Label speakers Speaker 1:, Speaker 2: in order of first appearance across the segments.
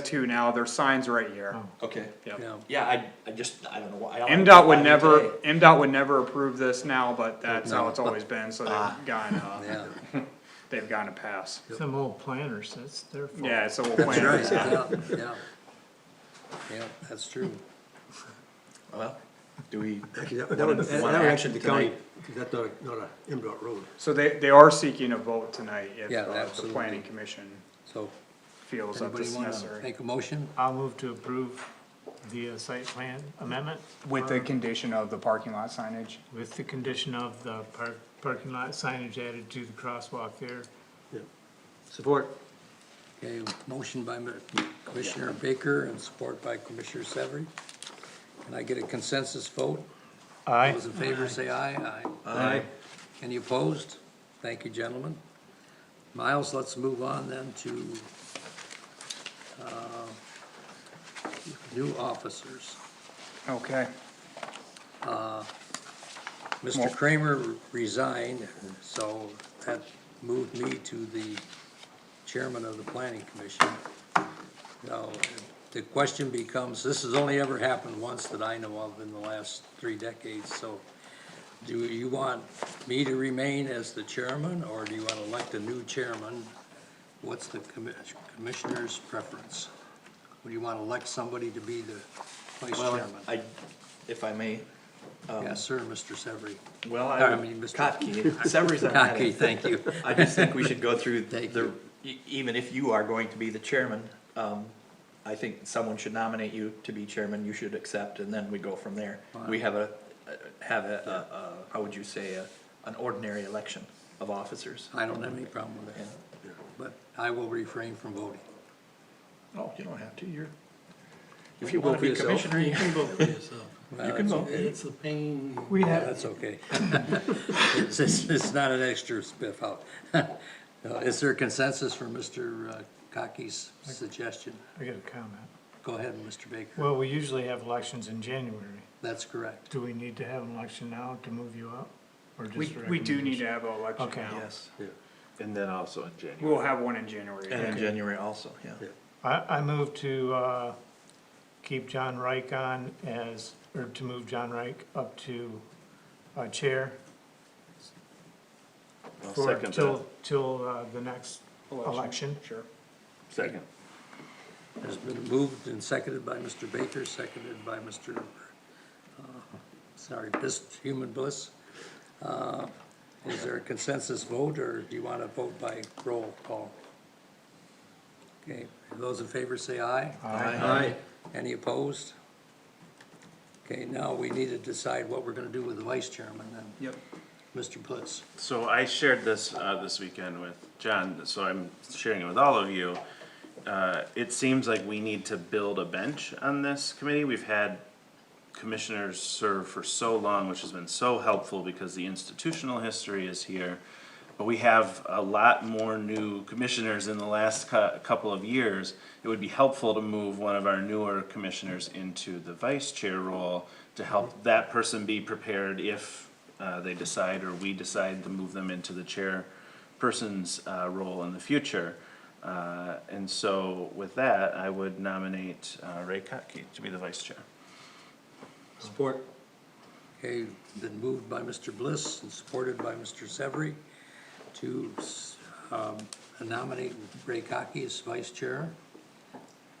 Speaker 1: two now, their signs right here.
Speaker 2: Okay.
Speaker 1: Yep.
Speaker 3: Yeah.
Speaker 2: Yeah, I, I just, I don't know why. I don't know
Speaker 1: MDOT
Speaker 2: why
Speaker 1: would never,
Speaker 2: today.
Speaker 1: MDOT would never approve this now, but that's how
Speaker 3: No.
Speaker 1: it's always been, so they've gotten, uh,
Speaker 3: Yeah.
Speaker 1: they've gotten a pass.
Speaker 4: Some old planners, that's their fault.
Speaker 1: Yeah, it's a little plan.
Speaker 3: Yeah, yeah. Yeah, that's true.
Speaker 2: Well, do we?
Speaker 5: Actually, that
Speaker 2: One-
Speaker 5: that would, that
Speaker 2: one
Speaker 5: that would
Speaker 2: action
Speaker 5: actually be county,
Speaker 2: tonight.
Speaker 5: 'cause that's not, a- not a MDOT road.
Speaker 1: So they, they are seeking a vote tonight if
Speaker 3: Yeah,
Speaker 1: uh, the
Speaker 3: absolutely.
Speaker 1: planning commission
Speaker 3: So,
Speaker 1: feels that this
Speaker 3: anybody
Speaker 1: is
Speaker 3: wanna
Speaker 1: necessary.
Speaker 3: make a motion?
Speaker 4: I'll move to approve the uh, site plan amendment
Speaker 1: With the condition of the parking lot signage?
Speaker 4: with the condition of the par- parking lot signage added to the crosswalk there.
Speaker 5: Support.
Speaker 3: Okay, motion by Commissioner Baker and support by Commissioner Severie. Can I get a consensus vote?
Speaker 4: Aye.
Speaker 3: Those in favor say aye, aye.
Speaker 5: Aye.
Speaker 3: Any opposed? Thank you, gentlemen. Miles, let's move on then to, uh, new officers.
Speaker 1: Okay.
Speaker 3: Mr. Kramer resigned, so that moved me to the chairman of the planning commission. Now, the question becomes, this has only ever happened once that I know of in the last three decades, so do you want me to remain as the chairman, or do you want to elect a new chairman? What's the commi- commissioner's preference? Would you want to elect somebody to be the vice
Speaker 2: Well,
Speaker 3: chairman?
Speaker 2: I, if I may,
Speaker 3: Yes, sir, Mr. Severie.
Speaker 2: well,
Speaker 3: No, I
Speaker 2: I,
Speaker 3: mean, Mr.
Speaker 2: Kotke, Severy's not had
Speaker 3: Cocky,
Speaker 2: it.
Speaker 3: thank you.
Speaker 2: I just think we should go through
Speaker 3: Thank
Speaker 2: the, e- even if you are going to be the chairman, um, I think someone should nominate you to be chairman, you should accept, and then we go from there. We have a, have a, a, a- how would you say, a, an ordinary election of officers.
Speaker 3: I don't have any problem with that, but I will refrain from voting.
Speaker 2: Oh, you don't have to, you're, if you will be
Speaker 3: yourself.
Speaker 2: commissioner, you can vote. You can vote.
Speaker 3: It's a pain.
Speaker 4: We have-
Speaker 3: That's okay. It's, it's it's not an extra spiff out. Uh, Is there consensus for Mr. Cocky's suggestion?
Speaker 4: I got a comment.
Speaker 3: Go ahead, Mr. Baker.
Speaker 4: Well, we usually have elections in January.
Speaker 3: That's correct.
Speaker 4: Do we need to have an election now to move you up? Or just
Speaker 1: We, we do need
Speaker 4: recommendation?
Speaker 1: to have an election
Speaker 4: Okay.
Speaker 1: now.
Speaker 2: Yes,
Speaker 6: And then also in January.
Speaker 1: We'll have one in January.
Speaker 2: and in January also, yeah.
Speaker 4: I, I move to, uh, keep John Reich on as, or to move John Reich up to, uh, chair.
Speaker 6: I'll
Speaker 4: for-
Speaker 6: second
Speaker 4: Till, till, uh, the next election.
Speaker 1: Sure.
Speaker 6: Second.
Speaker 3: Has been moved and seconded by Mr. Baker, seconded by Mr., uh, sorry, Bliss, Human Bliss. Uh, Is there a consensus vote, or do you want to vote by roll call? Okay, those in favor say aye.
Speaker 5: Aye.
Speaker 3: Any opposed? Okay, now we need to decide what we're gonna do with the vice chairman then.
Speaker 1: Yep.
Speaker 3: Mr. Bliss,
Speaker 6: So I shared this, uh, this weekend with John, so I'm sharing it with all of you. Uh, it seems like we need to build a bench on this committee. We've had commissioners serve for so long, which has been so helpful because the institutional history is here. But we have a lot more new commissioners in the last cou- couple of years. It would be helpful to move one of our newer commissioners into the vice chair role to help that person be prepared if uh, they decide or we decide to move them into the chair person's uh, role in the future. Uh, And so with that, I would nominate uh, Ray Kotke to be the vice chair.
Speaker 5: Support.
Speaker 3: okay, been moved by Mr. Bliss and supported by Mr. Severie to, um, nominate Ray Cockey as vice chair.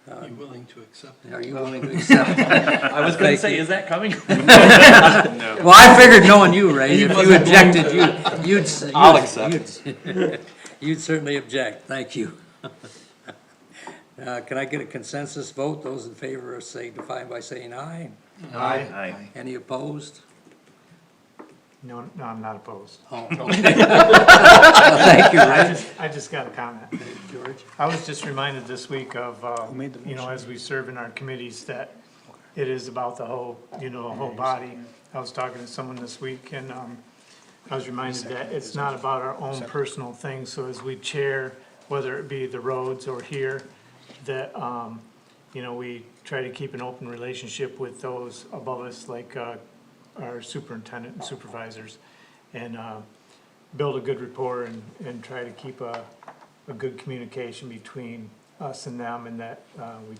Speaker 7: You willing to accept it?
Speaker 3: Are you willing to accept?
Speaker 2: I was gonna say, is that coming?
Speaker 3: Well, I figured knowing you, Ray, if you
Speaker 2: wasn't
Speaker 3: objected, you, you'd. s- you'd-
Speaker 2: I'll accept.
Speaker 3: you'd- You'd certainly object, thank you. Uh, can I get a consensus vote? Those in favor are signifying by saying aye.
Speaker 4: Aye.
Speaker 6: Aye.
Speaker 3: Any opposed?
Speaker 4: No, no, I'm not opposed.
Speaker 3: Oh, okay. Well, Thank you,
Speaker 4: I
Speaker 3: Ray.
Speaker 4: just, I just got a comment.
Speaker 3: George,
Speaker 4: I was just reminded this week of, uh,
Speaker 1: made the
Speaker 4: you know, as we serve in our committees, that it is about the whole, you know, the whole body. I was talking to someone this week and, um, I was reminded that it's not about our own personal things, so as we chair, whether it be the roads or here, that, um, you know, we try to keep an open relationship with those above us, like, uh, our superintendent
Speaker 1: Oh.
Speaker 4: and supervisors. And, uh, build a good rapport and, and try to keep a, a good communication between us and them, and that, uh, we